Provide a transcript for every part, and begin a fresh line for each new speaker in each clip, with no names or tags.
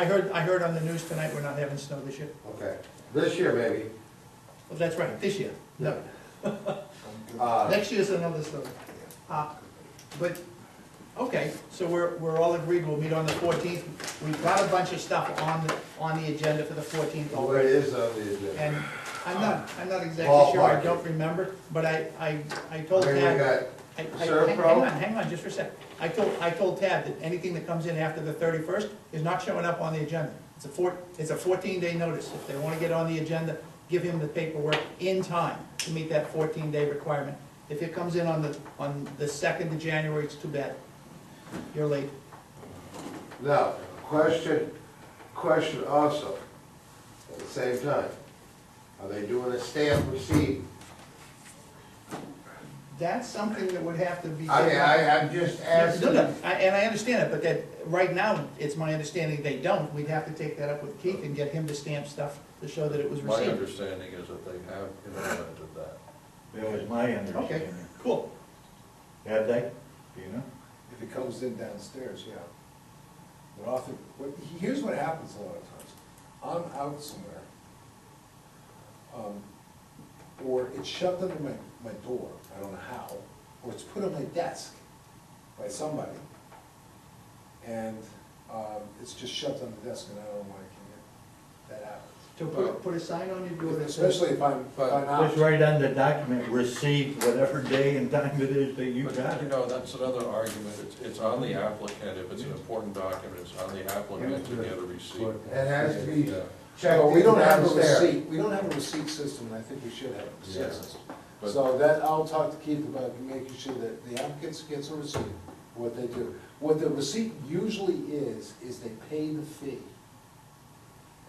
I heard, I heard on the news tonight, we're not having snow this year.
Okay, this year maybe.
Well, that's right, this year. No,
Uh,
next year's another story. Uh, But, okay, so we're, we're all agreed, we'll meet on the fourteenth. We've got a bunch of stuff on, the on the agenda for the fourteenth
Well, it
already.
is on the agenda.
And I'm not, I'm not exactly
Ballpark.
sure, I don't remember, but I, I, I
I
told
mean, we
Tad.
got,
I- I-
Sir,
hang-
Pro?
Hang on, hang on, just for a sec. I told, I told Tad that anything that comes in after the thirty-first is not showing up on the agenda. It's a four, it's a fourteen-day notice. If they wanna get on the agenda, give him the paperwork in time to meet that fourteen-day requirement. If it comes in on the, on the second of January, it's too bad. You're late.
no, question, question also, at the same time. Are they doing a stamp receipt?
That's something that would have to be.
I mean, I, I'm just
No,
asking.
no, I- and I understand it, but that, right now, it's my understanding they don't. We'd have to take that up with Keith and get him to stamp stuff to show that it was
My
received.
understanding is that they have implemented that.
That was my
Okay,
understanding.
cool.
Have they? Do you know?
If it comes in downstairs, yeah. But often, what, here's what happens a lot of times. I'm out somewhere, um, or it's shoved under my, my door, I don't know how, or it's put on my desk by somebody. And, um, it's just shoved on the desk and I don't know why it came in. That happens.
To uh, put, put a sign on your door that says,
Especially if I'm, if I'm
Uh,
It was
out.
right on the document, received whatever day and time it is that you
But,
got
you
it.
know, that's another argument, it's, it's on the applicant, if it's an important document, it's on the applicant to get a receipt.
It has to be
Yeah.
checked
Well, we
in
don't have a
downstairs.
receipt, we don't have a receipt system, and I think we should have a
Yeah.
receipt system.
But-
So that, I'll talk to Keith about making sure that the applicants gets a receipt, what they do. What the receipt usually is, is they pay the fee.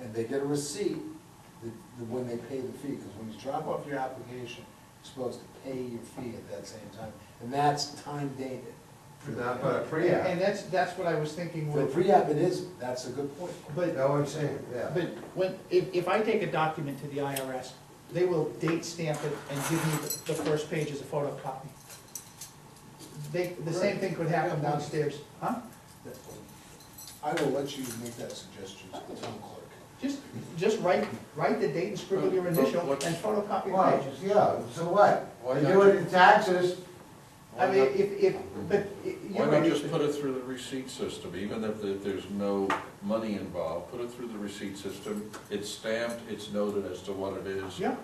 And they get a receipt the- the- when they pay the fee, because when you drop off your application, you're supposed to pay your fee at that same time. And that's time dated.
Not but a
and
pre-app.
that's, that's what I was thinking
For
with,
pre-app, it isn't, that's a good point.
but,
No, I'm saying, yeah.
but when, if, if I take a document to the IRS, they will date stamp it and give me the, the first page as a photocopy. They, the same thing could happen downstairs, huh?
I will let you make that suggestion to the town clerk.
Just, just write, write the date and scribble your
But- but
initial and
what's-
photocopy the
Well,
pages.
yeah, so what?
Why
They
not
do it in taxes,
I mean, if, if, but. you
Why not
already-
just put it through the receipt system, even if there- there's no money involved, put it through the receipt system, it's stamped, it's noted as to what it is.
Yeah,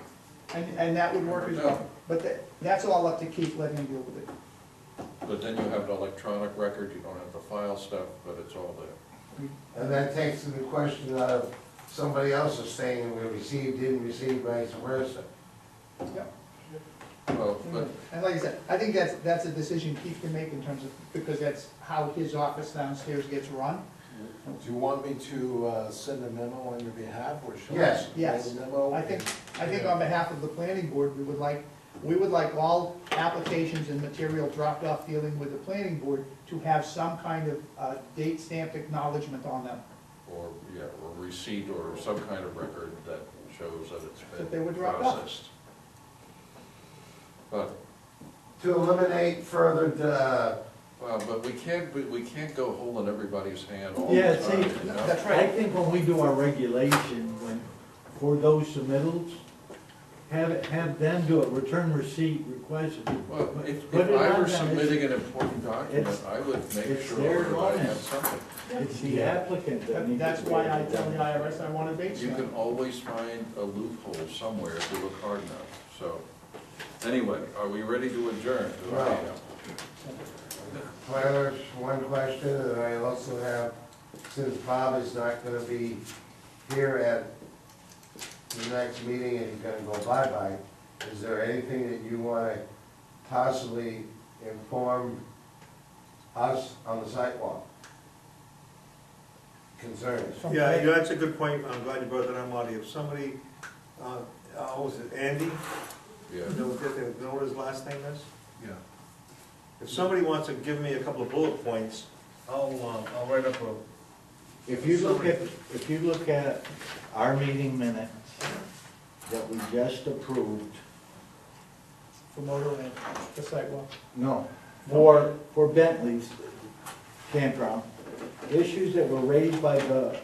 and, and that would work as well, but that, that's all up to Keith letting him deal with it.
But then you have an electronic record, you don't have the file stuff, but it's all there.
and that takes the question of somebody else is saying we received, didn't receive, vice versa.
Yeah.
Well,
Mm.
but
And like I said, I think that's, that's a decision Keith can make in terms of, because that's how his office downstairs gets run.
Do you want me to uh, send a memo on your behalf, or shall I?
Yes.
send a
Yes.
memo?
I think, I think on behalf of the planning board, we would like, we would like all applications and material dropped off dealing with the planning board to have some kind of, uh, date stamped acknowledgement on them,
or, yeah, or receipt or some kind of record that shows that it's
That they were
been
dropped off.
processed. But,
To eliminate further, uh,
well, but we can't, we- we can't go holding everybody's hand all the
Yeah,
time,
see,
you know?
that's
I
right.
think when we do our regulation, when, for those submittals, have, it- have them do a return receipt request.
Well, if,
Put
if
it
I
on
were
them,
submitting an important document,
it's-
I would make
it's their
sure that I
line.
have something.
It's the applicant that needs.
That's
to
why
do
I
it.
tell the IRS I want a date
You
stamp.
can always find a loophole somewhere if you look hard enough, so. Anyway, are we ready to adjourn? Do I-
Right. Tyler, one question, and I also have, since Bob is not gonna be here at the next meeting and he's gonna go bye-bye, is there anything that you wanna possibly inform us on the sidewalk? Concerns?
From
Yeah,
today.
you know, that's a good point, I'm glad you brought that up, Marty, if somebody, uh, uh, what was it, Andy, you
Yeah.
know, did they know what his last name is?
Yeah,
If somebody wants to give me a couple of bullet points,
I'll, uh, I'll write up a,
If you look at, if you look at our meeting minutes that we just approved,
For motorland, the sidewalk.
no, for, for Bentley's campground, issues that were raised by the